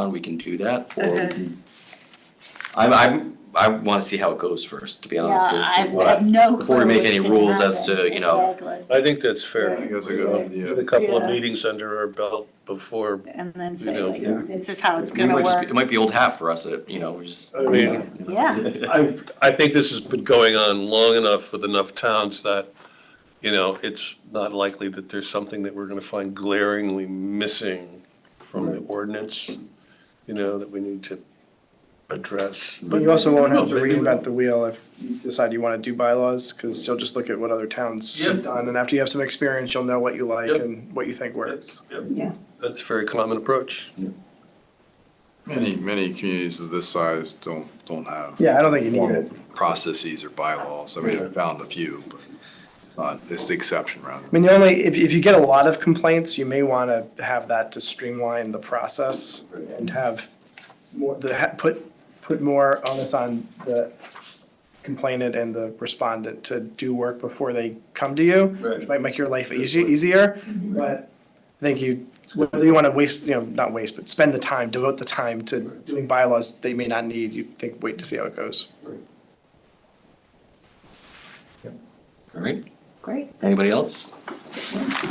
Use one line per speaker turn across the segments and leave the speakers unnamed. on, we can do that, or we
Okay.
can. I'm, I'm, I wanna see how it goes first, to be honest.
Yeah,
and
I
see
have-
what-
I have no clue
before we make
what's
any
gonna
rules as
happen.
to, you know-
Exactly.
I think that's
I
fair.
think
that's a good
We
idea.
had A couple of
Yeah.
meetings under our belt before,
And then
You
say
know,
yeah.
like, this is how it's
It
gonna
might just be,
work.
it might be old hat for us, it- you know, we're just.
I mean-
Yeah.
I, I think this has been going on long enough with enough towns that, you know, it's not likely that there's something that we're gonna find glaringly missing from the ordinance, you know, that we need to address.
But you also won't have to
Oh, maybe-
reinvent the wheel if you decide you want to do bylaws, because you'll just look at what other towns
Yeah.
have done, and after you have some experience, you'll know what you like
Yep.
and what you think works.
Yeah.
That's a very common approach.
Many, many communities of this size don't, don't have.
Yeah, I don't think you need
formal
it.
Processes or bylaws. I mean, I've found a few, but it's not, it's the exception rather.
I mean, the only, if, if you get a lot of complaints, you may want to have that to streamline the process and have more, the, ha- put, put more onus on the complainant and the respondent to do work before they come to you. Which might make your life easy, easier, but I think you, whether you want to waste, you know, not waste, but spend the time, devote the time to doing bylaws they may not need, you think, wait to see how it goes.
Alright,
Great.
anybody else?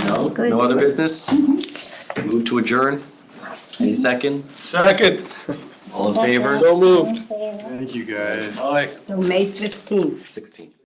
No,
Good. Mm-hmm.
no other business? Move to adjourn? Any seconds?
Second,
All in favor?
so moved.
Thank you, guys.
Aye.
So May fifteenth.
Sixteen.